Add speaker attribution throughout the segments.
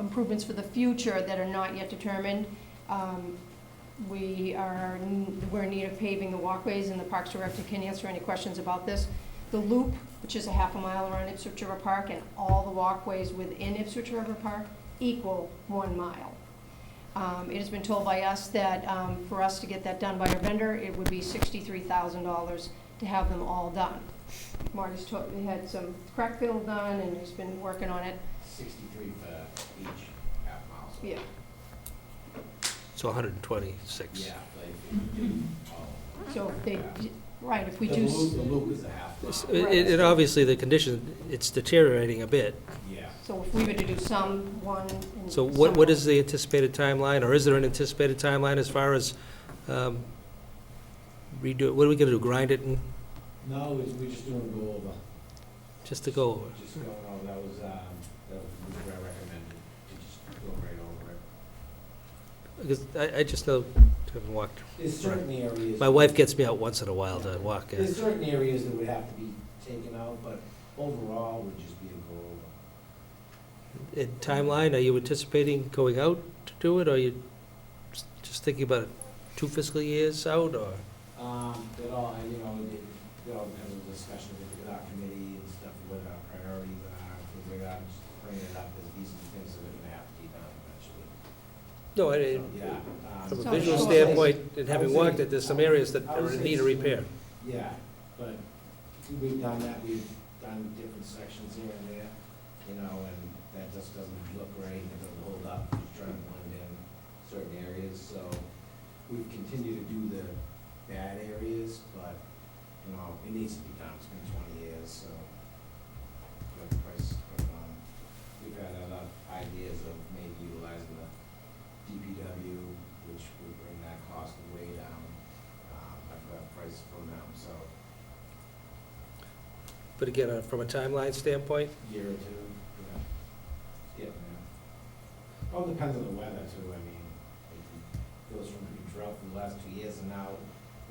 Speaker 1: improvements for the future that are not yet determined. Um, We are, n- we're in need of paving the walkways, and the Parks Director can answer any questions about this. The loop, which is a half a mile around Ipswich River Park, and all the walkways within Ipswich River Park equal one mile. Um, It has been told by us that um, for us to get that done by our vendor, it would be $63,000 to have them all done. Marty's taught, he had some crack fill done, and he's been working on it,
Speaker 2: Sixty-three for each half mile. so-
Speaker 1: yeah.
Speaker 3: So 126.
Speaker 2: Yeah, like, if
Speaker 3: Mm-hmm.
Speaker 2: you do all-
Speaker 1: So if they, right, if we
Speaker 2: The
Speaker 1: do, s-
Speaker 2: loop- The loop is a half
Speaker 3: It's-
Speaker 2: mile,
Speaker 3: It, it, obviously, the condition, it's deteriorating a bit.
Speaker 2: yeah.
Speaker 1: so if we were to do some, one, and.
Speaker 3: Mm. So what, what
Speaker 1: some-
Speaker 3: is the anticipated timeline, or is there an anticipated timeline as far as um, redo, what are we gonna do, grind it and,
Speaker 2: No, it's- we just doing go over.
Speaker 3: just to go over?
Speaker 2: Just going over, that was, um, that was what I recommended, to just go right over it.
Speaker 3: Because I, I just know, having walked,
Speaker 2: There's certain areas.
Speaker 3: my wife gets me out once in a while to walk. uh,
Speaker 2: There's certain areas that would have to be taken out, but overall, would just be a go over.
Speaker 3: And timeline, are you anticipating going out to do it, or are you s- just thinking about it two fiscal years out, or?
Speaker 2: Um, it all, you know, it, it all depends on discussion with our committee and stuff, what our priorities are, things like that, just bringing it up, as these are the things that are gonna have to be done eventually.
Speaker 3: No, I,
Speaker 2: So, Yeah. um,
Speaker 3: From a
Speaker 1: So-
Speaker 3: visual
Speaker 1: so-
Speaker 3: standpoint, and
Speaker 2: I would
Speaker 3: having walked
Speaker 2: say-
Speaker 3: it, there's some areas that
Speaker 2: I would
Speaker 3: are in
Speaker 2: say
Speaker 3: need of
Speaker 2: it's-
Speaker 3: repair.
Speaker 2: Yeah, but we've done that, we've done different sections here and there, you know, and that just doesn't look right, it doesn't hold up, just trying to blend in certain areas, so we've continued to do the bad areas, but, you know, it needs to be done, it's been twenty years, so. Got the price put on. We've had other ideas of maybe utilizing the DPW, which would bring that cost way down. Um, I've got a price from them, so
Speaker 3: But again, uh, from a timeline standpoint,
Speaker 2: year or two, you know, it's getting there. All depends on the weather too, I mean, it goes from being drought for the last two years and now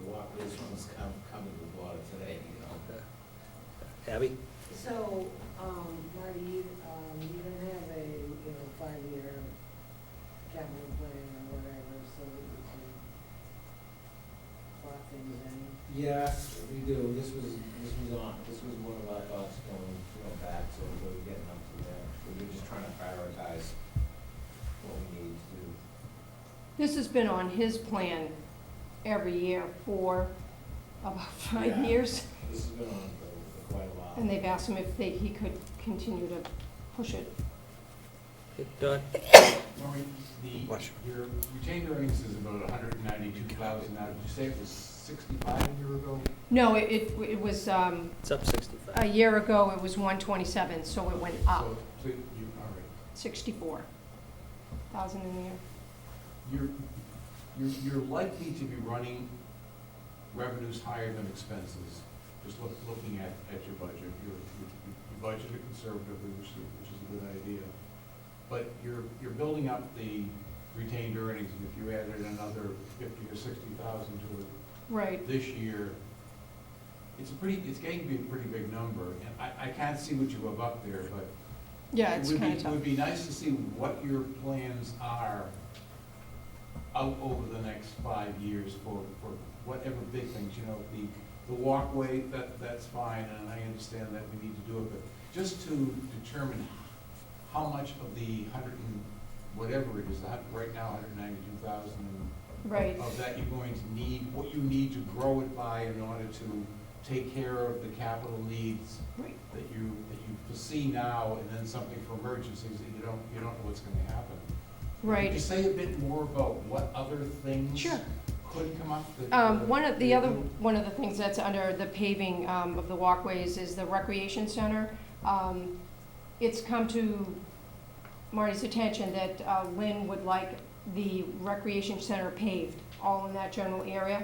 Speaker 2: the walkways from us come, coming with water today, you know.
Speaker 3: uh, Abby?
Speaker 4: So, um, Marty, you, um, you don't have a, you know, five-year capital plan or whatever, so that you can plot things in.
Speaker 2: Yeah, we do, this was, this was on, this was one of our thoughts going, you know, back, so we were getting up to there. We were just trying to prioritize what we need to do.
Speaker 1: This has been on his plan every year for about five
Speaker 2: Yeah.
Speaker 1: years,
Speaker 2: This has been on for for quite a while.
Speaker 1: and they've asked him if they, he could continue to push it.
Speaker 3: Don?
Speaker 5: Maureen, the,
Speaker 3: Bless
Speaker 5: your retained earnings is about hundred and ninety-two thousand now. Did you say it was sixty-five a year ago?
Speaker 1: No, it, it- it was, um,
Speaker 3: It's up
Speaker 1: a
Speaker 3: 65.
Speaker 1: year ago, it was one twenty-seven, so it went up
Speaker 5: So, so you, all right.
Speaker 1: sixty-four thousand in the year.
Speaker 5: You're, you're, you're likely to be running revenues higher than expenses, just look, looking at, at your budget. You're, you budgeted conservatively, which is, which is a good idea. But you're, you're building up the retained earnings, and if you added another fifty or sixty thousand to it,
Speaker 1: Right,
Speaker 5: this year, it's a pretty, it's getting to be a pretty big number, and I, I can't see what you have up there, but.
Speaker 1: yeah,
Speaker 5: it
Speaker 1: it's
Speaker 5: would be-
Speaker 1: kind of
Speaker 5: It
Speaker 1: tough.
Speaker 5: would be nice to see what your plans are out over the next five years for, for whatever big things, you know, the, the walkway, that, that's fine, and I understand that we need to do it, but just to determine how much of the hundred and, whatever it is, the hun- right now, hundred and ninety-two thousand and
Speaker 1: Right,
Speaker 5: of that you're going to need, what you need to grow it by in order to take care of the capital needs
Speaker 1: right,
Speaker 5: that you, that you foresee now, and then something for emergencies that you don't, you don't know what's gonna happen. Could you
Speaker 1: right.
Speaker 5: say a bit more about what other things?
Speaker 1: Sure.
Speaker 5: Could uh, come up that?
Speaker 1: Um, one of, the other, one of the things that's under the paving, um, of the walkways is the recreation center. Um, it's come to Marty's attention that uh, Lynn would like the recreation center paved, all in that general area,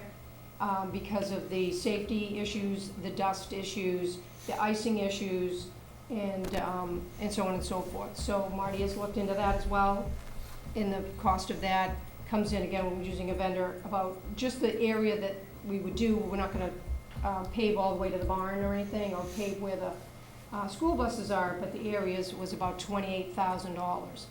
Speaker 1: um, because of the safety issues, the dust issues, the icing issues, and, um, and so on and so forth. So Marty has looked into that as well, and the cost of that comes in, again, when we're using a vendor, about just the area that we would do, we're not gonna uh, pave all the way to the barn or anything, or pave where the uh, school buses are, but the areas was about twenty-eight thousand dollars.